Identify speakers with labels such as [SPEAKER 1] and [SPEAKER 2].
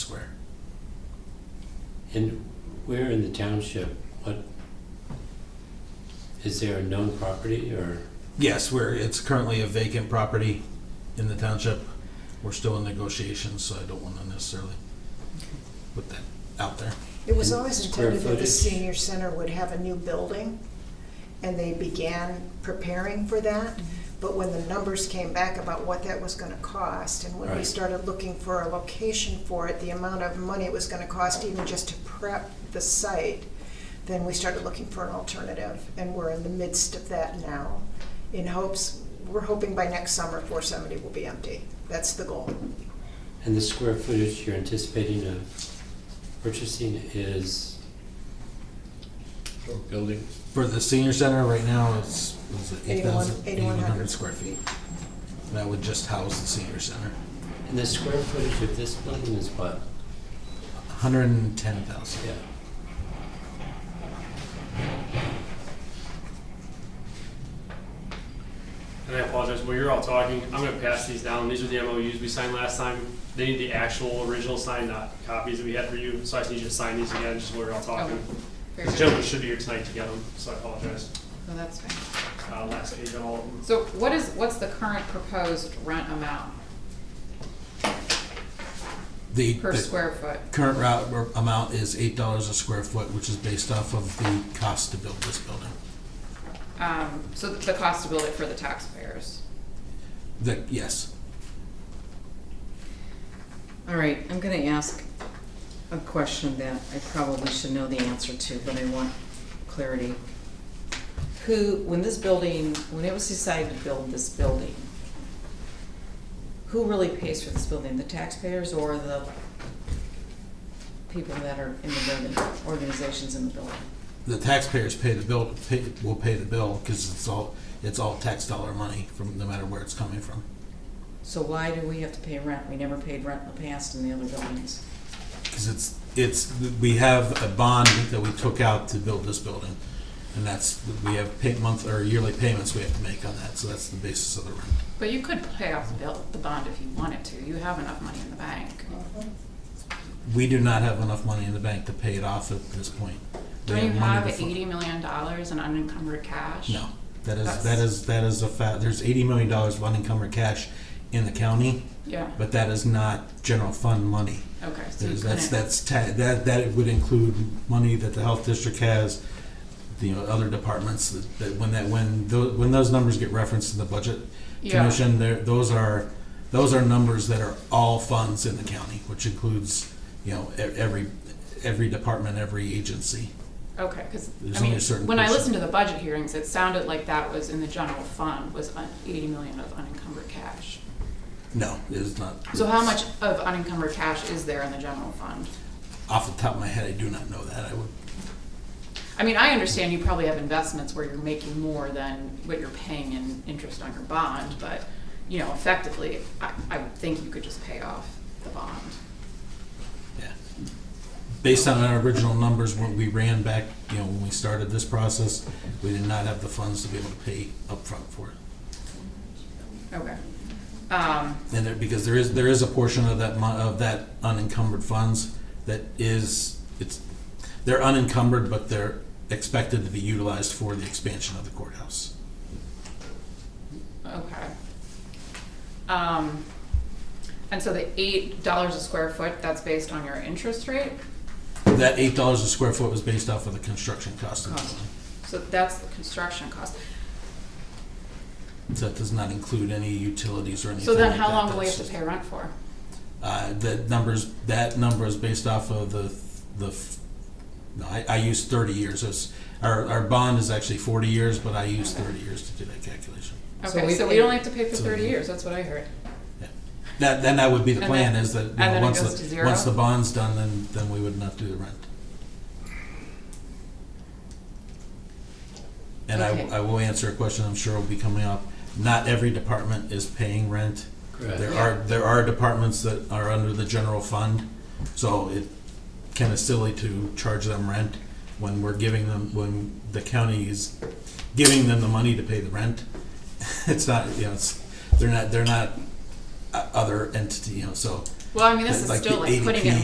[SPEAKER 1] And where in the township, what, is there a known property or,
[SPEAKER 2] Yes, we're, it's currently a vacant property in the township. We're still in negotiations, so I don't want to necessarily put that out there.
[SPEAKER 3] It was always
[SPEAKER 1] Square
[SPEAKER 3] intended that the
[SPEAKER 1] footage.
[SPEAKER 3] senior center would have a new building, and they began preparing for that. But when the numbers came back about what that was gonna cost, and when we
[SPEAKER 1] Right.
[SPEAKER 3] started looking for a location for it, the amount of money it was gonna cost even just to prep the site, then we started looking for an alternative, and we're in the midst of that now. In hopes, we're hoping by next summer, four seventy will be empty. That's the goal.
[SPEAKER 1] and the square footage you're anticipating of purchasing is,
[SPEAKER 4] Or building,
[SPEAKER 2] For the senior center right now, it's, was it 8,000?
[SPEAKER 3] 81
[SPEAKER 2] 8,100 square feet. And That would just house the senior center.
[SPEAKER 1] and the square footage of this building is what?
[SPEAKER 2] 110,000.
[SPEAKER 1] Yeah.
[SPEAKER 5] And I apologize, while you're all talking, I'm gonna pass these down. These are the MOUs we signed last time. They need the actual original signed, not copies that we had for you, so I just need you to sign these again, just while you're all talking.
[SPEAKER 6] Fair
[SPEAKER 5] The
[SPEAKER 6] enough.
[SPEAKER 5] gentleman should be here tonight to get them, so I apologize.
[SPEAKER 6] No, that's fine.
[SPEAKER 5] Uh, last page on all of them.
[SPEAKER 6] So what is, what's the current proposed rent amount
[SPEAKER 2] The
[SPEAKER 6] per
[SPEAKER 2] the
[SPEAKER 6] square foot?
[SPEAKER 2] Current route or amount is $8 a square foot, which is based off of the cost to build this building.
[SPEAKER 6] Um, so the cost to build it for the taxpayers.
[SPEAKER 2] That, yes,
[SPEAKER 7] All right, I'm gonna ask a question that I probably should know the answer to, but I want clarity. Who, when this building, when it was decided to build this building, who really pays for this building, the taxpayers or the people that are in the building, organizations in the building?
[SPEAKER 2] the taxpayers pay the bill, pay- will pay the bill because it's all, it's all tax dollar money from, no matter where it's coming from.
[SPEAKER 7] So why do we have to pay rent? We never paid rent in the past in the other buildings.
[SPEAKER 2] Because it's, it's, we have a bond that we took out to build this building. And that's, we have pay month, or yearly payments we have to make on that, so that's the basis of the rent.
[SPEAKER 6] But you could pay off the bill, the bond if you wanted to. You have enough money in the bank.
[SPEAKER 2] We do not have enough money in the bank to pay it off at this point. We
[SPEAKER 6] Don't you
[SPEAKER 2] money
[SPEAKER 6] have
[SPEAKER 2] to fu-
[SPEAKER 6] eighty million dollars in unencumbered cash?
[SPEAKER 2] No, that is,
[SPEAKER 6] That's-
[SPEAKER 2] that is, that is a fact, there's eighty million dollars of unencumbered cash in the county,
[SPEAKER 6] Yeah,
[SPEAKER 2] but that is not general fund money.
[SPEAKER 6] okay, so you
[SPEAKER 2] There's, that's,
[SPEAKER 6] couldn't,
[SPEAKER 2] that's, ta- that, that would include money that the health district has, you know, other departments, that, that when that, when those, when those numbers get referenced in the budget
[SPEAKER 6] Yeah.
[SPEAKER 2] commission, there, those are, those are numbers that are all funds in the county, which includes, you know, e- every, every department, every agency.
[SPEAKER 6] okay, because,
[SPEAKER 2] There's
[SPEAKER 6] I
[SPEAKER 2] only
[SPEAKER 6] mean,
[SPEAKER 2] a certain
[SPEAKER 6] when I
[SPEAKER 2] percent.
[SPEAKER 6] listened to the budget hearings, it sounded like that was in the general fund, was un- eighty million of unencumbered cash.
[SPEAKER 2] No, it is not.
[SPEAKER 6] So how much of unencumbered cash is there in the general fund?
[SPEAKER 2] Off the top of my head, I do not know that, I would,
[SPEAKER 6] I mean, I understand you probably have investments where you're making more than what you're paying in interest on your bond, but, you know, effectively, I, I would think you could just pay off the bond.
[SPEAKER 2] Yeah. Based on our original numbers, when we ran back, you know, when we started this process, we did not have the funds to be able to pay upfront for it.
[SPEAKER 6] Okay. Um,
[SPEAKER 2] And there, because there is, there is a portion of that mon, of that unencumbered funds that is, it's, they're unencumbered, but they're expected to be utilized for the expansion of the courthouse.
[SPEAKER 6] Okay. Um, and so the eight dollars a square foot, that's based on your interest rate?
[SPEAKER 2] That eight dollars a square foot was based off of the construction cost of the
[SPEAKER 6] Cost.
[SPEAKER 2] building.
[SPEAKER 6] So that's the construction cost.
[SPEAKER 2] So that does not include any utilities or anything
[SPEAKER 6] So then
[SPEAKER 2] like
[SPEAKER 6] how
[SPEAKER 2] that.
[SPEAKER 6] long will we
[SPEAKER 2] That's
[SPEAKER 6] have to
[SPEAKER 2] just-
[SPEAKER 6] pay rent for?
[SPEAKER 2] Uh, that numbers, that number is based off of the, the, f- no, I, I use thirty years, it's, our, our bond is actually forty years, but I use thirty years to do that calculation.
[SPEAKER 7] So
[SPEAKER 6] Okay,
[SPEAKER 7] we
[SPEAKER 6] so we
[SPEAKER 7] pay-
[SPEAKER 6] don't have to pay for
[SPEAKER 2] so-
[SPEAKER 6] thirty years, that's what I heard.
[SPEAKER 2] Yeah. That, then that would be the
[SPEAKER 6] And
[SPEAKER 2] plan,
[SPEAKER 6] then-
[SPEAKER 2] is that, you
[SPEAKER 6] and
[SPEAKER 2] know,
[SPEAKER 6] then it
[SPEAKER 2] once
[SPEAKER 6] goes to
[SPEAKER 2] the,
[SPEAKER 6] zero?
[SPEAKER 2] once the bond's done, then, then we would not do the rent. And
[SPEAKER 6] Okay.
[SPEAKER 2] I, I will answer a question I'm sure will be coming up, not every department is paying rent. There
[SPEAKER 1] correct?
[SPEAKER 2] are, there are departments that are under the general fund, so it kind of silly to charge them rent when we're giving them, when the county is giving them the money to pay the rent. It's not, you know, it's, they're not, they're not o- uh, other entity, you know, so.
[SPEAKER 6] Well, I mean, this
[SPEAKER 2] Like
[SPEAKER 6] is
[SPEAKER 2] the
[SPEAKER 6] still like putting it
[SPEAKER 2] ADP